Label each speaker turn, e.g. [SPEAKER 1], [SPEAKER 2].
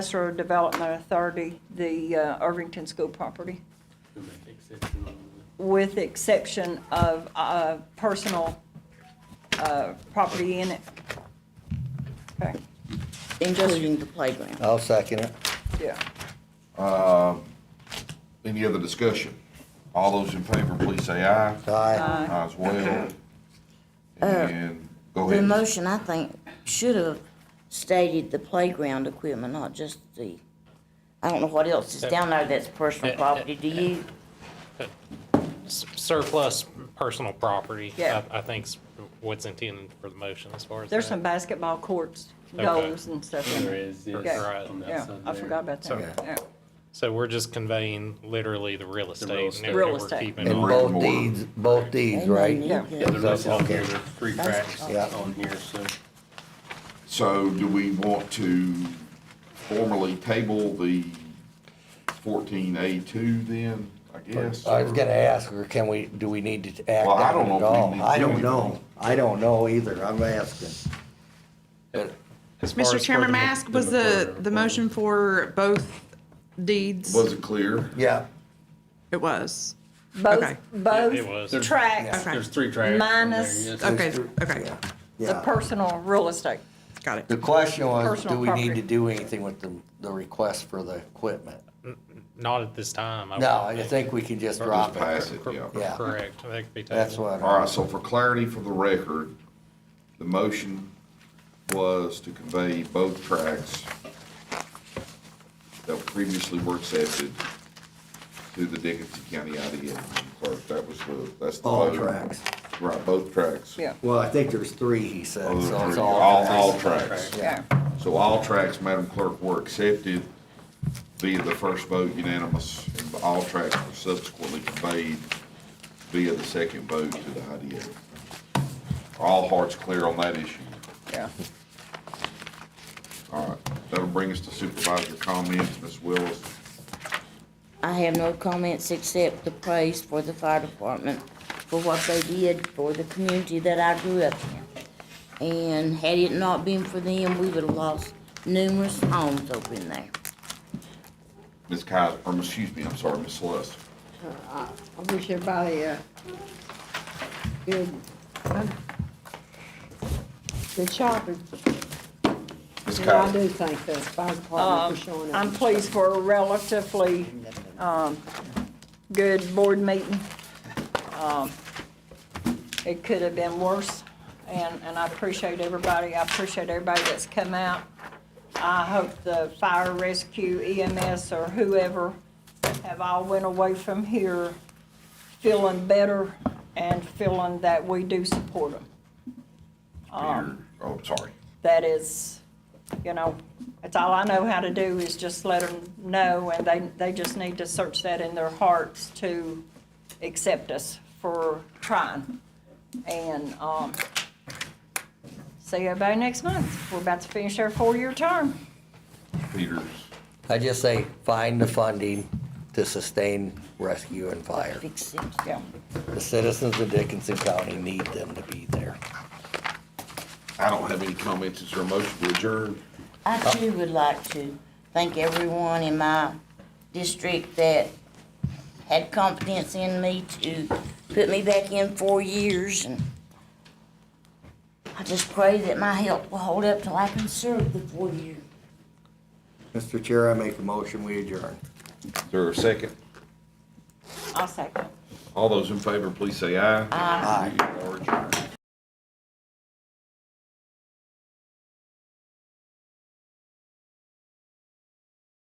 [SPEAKER 1] Industrial Development Authority, the uh, Irvington School property, with the exception of uh, personal uh, property in it. Okay,
[SPEAKER 2] including the playground.
[SPEAKER 3] I'll second it.
[SPEAKER 1] yeah.
[SPEAKER 4] Uh, Any other discussion? All those in favor, please say aye.
[SPEAKER 3] Aye.
[SPEAKER 4] Aye as well. And go
[SPEAKER 2] Uh, The
[SPEAKER 4] ahead.
[SPEAKER 2] motion, I think, should have stated the playground equipment, not just the, I don't know what else is down there that's personal property. Do you?
[SPEAKER 5] surplus personal property,
[SPEAKER 1] Yeah.
[SPEAKER 5] I I think's what's intended for the motion as far as
[SPEAKER 1] There's
[SPEAKER 5] that.
[SPEAKER 1] some basketball courts,
[SPEAKER 5] Okay.
[SPEAKER 1] domes and stuff in
[SPEAKER 6] There
[SPEAKER 1] there.
[SPEAKER 6] is, yes.
[SPEAKER 1] Yeah,
[SPEAKER 5] Right.
[SPEAKER 6] on that
[SPEAKER 1] yeah,
[SPEAKER 6] side
[SPEAKER 1] I
[SPEAKER 6] there.
[SPEAKER 1] forgot about that.
[SPEAKER 3] Okay.
[SPEAKER 1] Yeah.
[SPEAKER 5] So we're just conveying literally the real estate and
[SPEAKER 6] estate.
[SPEAKER 5] everything
[SPEAKER 1] Real
[SPEAKER 5] we're
[SPEAKER 1] estate.
[SPEAKER 5] keeping
[SPEAKER 3] And
[SPEAKER 5] on.
[SPEAKER 3] both deeds, both deeds, right?
[SPEAKER 1] Yeah.
[SPEAKER 6] Yeah, there is, on here,
[SPEAKER 3] Okay.
[SPEAKER 6] there's three cracks
[SPEAKER 3] Yeah.
[SPEAKER 6] on here, so.
[SPEAKER 4] So do we want to formally table the fourteen A two then, I guess?
[SPEAKER 3] I was gonna ask her, can we, do we need to act
[SPEAKER 4] Well, I
[SPEAKER 3] on
[SPEAKER 4] don't
[SPEAKER 3] it
[SPEAKER 4] know if
[SPEAKER 3] at
[SPEAKER 4] we need
[SPEAKER 3] all?
[SPEAKER 4] to
[SPEAKER 3] I
[SPEAKER 4] do
[SPEAKER 3] don't
[SPEAKER 4] anything.
[SPEAKER 3] know. I don't know either. I'm asking.
[SPEAKER 5] As far as
[SPEAKER 7] Mr.
[SPEAKER 5] for
[SPEAKER 7] Chairman,
[SPEAKER 5] the-
[SPEAKER 7] may I ask, was the, the motion for both deeds?
[SPEAKER 4] Was it clear?
[SPEAKER 3] Yeah,
[SPEAKER 7] It was.
[SPEAKER 1] Both,
[SPEAKER 7] Okay.
[SPEAKER 5] It
[SPEAKER 1] both
[SPEAKER 5] was.
[SPEAKER 1] tracks,
[SPEAKER 7] Okay.
[SPEAKER 6] There's three tracks on there,
[SPEAKER 1] Minus-
[SPEAKER 6] yes.
[SPEAKER 7] Okay, okay,
[SPEAKER 1] the
[SPEAKER 3] yeah.
[SPEAKER 1] personal real estate.
[SPEAKER 7] got it.
[SPEAKER 3] The question was,
[SPEAKER 1] Personal
[SPEAKER 3] do we need
[SPEAKER 1] property.
[SPEAKER 3] to do anything with the, the request for the equipment?
[SPEAKER 5] Not at this time. I
[SPEAKER 3] No,
[SPEAKER 5] wouldn't
[SPEAKER 3] I think we can just drop
[SPEAKER 4] pass
[SPEAKER 3] it.
[SPEAKER 4] it.
[SPEAKER 5] Cor-
[SPEAKER 3] Yeah.
[SPEAKER 5] Correct. That could be taken.
[SPEAKER 3] That's what,
[SPEAKER 4] All
[SPEAKER 3] I-
[SPEAKER 4] right, so for clarity for the record, the motion was to convey both tracks that previously were accepted to the Dickinson County IDA clerk. That was the, that's the.
[SPEAKER 3] all
[SPEAKER 4] vote.
[SPEAKER 3] tracks.
[SPEAKER 4] Right, both tracks.
[SPEAKER 1] Yeah,
[SPEAKER 3] Well, I think there's three, he said,
[SPEAKER 4] All,
[SPEAKER 3] so it's
[SPEAKER 4] all-
[SPEAKER 3] all.
[SPEAKER 4] all tracks.
[SPEAKER 1] yeah.
[SPEAKER 4] So all tracks, Madam Clerk, were accepted via the first vote unanimous, and all tracks were subsequently conveyed via the second vote to the IDA. Are All hearts clear on that issue.
[SPEAKER 1] Yeah.
[SPEAKER 4] All right, that'll bring us to supervisor comments, Ms. Willis.
[SPEAKER 2] I have no comments except the praise for the fire department for what they did for the community that I grew up in. And had it not been for them, we would have lost numerous homes over in there.
[SPEAKER 4] Ms. Kaiser, or, excuse me, I'm sorry, Ms. Celeste.
[SPEAKER 8] I wish everybody a uh, good, good shopping.
[SPEAKER 4] Ms.
[SPEAKER 8] And I do
[SPEAKER 4] Kaiser,
[SPEAKER 8] thank the fire department for showing up.
[SPEAKER 1] Um, I'm pleased for a relatively um, good board meeting. Um, It could have been worse, and, and I appreciate everybody, I appreciate everybody that's come out. I hope the fire rescue EMS or whoever have all went away from here feeling better and feeling that we do support them.
[SPEAKER 4] Peter, oh, sorry.
[SPEAKER 1] that is, you know, it's all I know how to do is just let them know, and they, they just need to search that in their hearts to accept us for trying. And, um, see everybody next month. We're about to finish our four-year term.
[SPEAKER 4] Peters,
[SPEAKER 3] I just say, find the funding to sustain rescue and fire.
[SPEAKER 2] Fix it.
[SPEAKER 1] Yeah,
[SPEAKER 3] The citizens of Dickinson County need them to be there.
[SPEAKER 4] I don't have any comments, is there a motion to adjourn?
[SPEAKER 2] I too would like to thank everyone in my district that had confidence in me to put me back in four years and I just pray that my health will hold up till I can serve the four year.
[SPEAKER 3] Mr. Chair, I make a motion, we adjourn.
[SPEAKER 4] Is there a second?
[SPEAKER 1] I'll second.
[SPEAKER 4] All those in favor, please say aye. Aye. We are adjourned.